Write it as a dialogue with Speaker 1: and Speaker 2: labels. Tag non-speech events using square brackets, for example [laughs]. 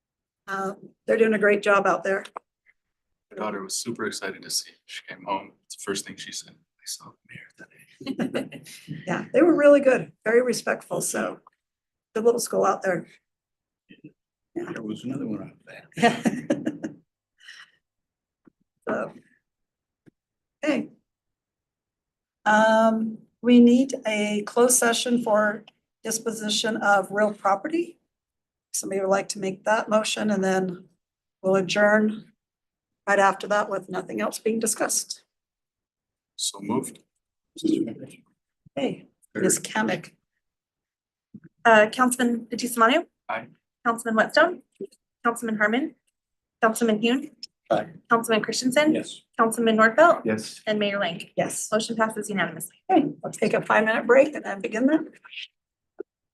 Speaker 1: Uh, they're doing a great job out there.
Speaker 2: My daughter was super excited to see. it. She came home. It's the first thing she said. I saw the mayor today.
Speaker 1: Yeah, they were really good, very respectful, so the little school out there. [laughs]
Speaker 3: There was another one out there.
Speaker 1: So, Okay. Um, we need a closed session for disposition of real property. Somebody would like to make that motion and then we'll adjourn right after that with nothing else being discussed.
Speaker 2: So moved.
Speaker 1: Hey,
Speaker 2: Or-
Speaker 1: Ms. Kamic,
Speaker 4: Uh, Councilman Fatis Manu.
Speaker 2: Aye.
Speaker 4: Councilman Whitstone. Councilman Harmon. Councilman Hune.
Speaker 3: Aye.
Speaker 4: Councilman Christensen.
Speaker 3: Yes.
Speaker 4: Councilman Norfelt.
Speaker 2: Yes.
Speaker 4: And Mayor Lang.
Speaker 1: yes,
Speaker 4: Motion passes unanimously.
Speaker 1: okay, let's take a five minute break and then begin that.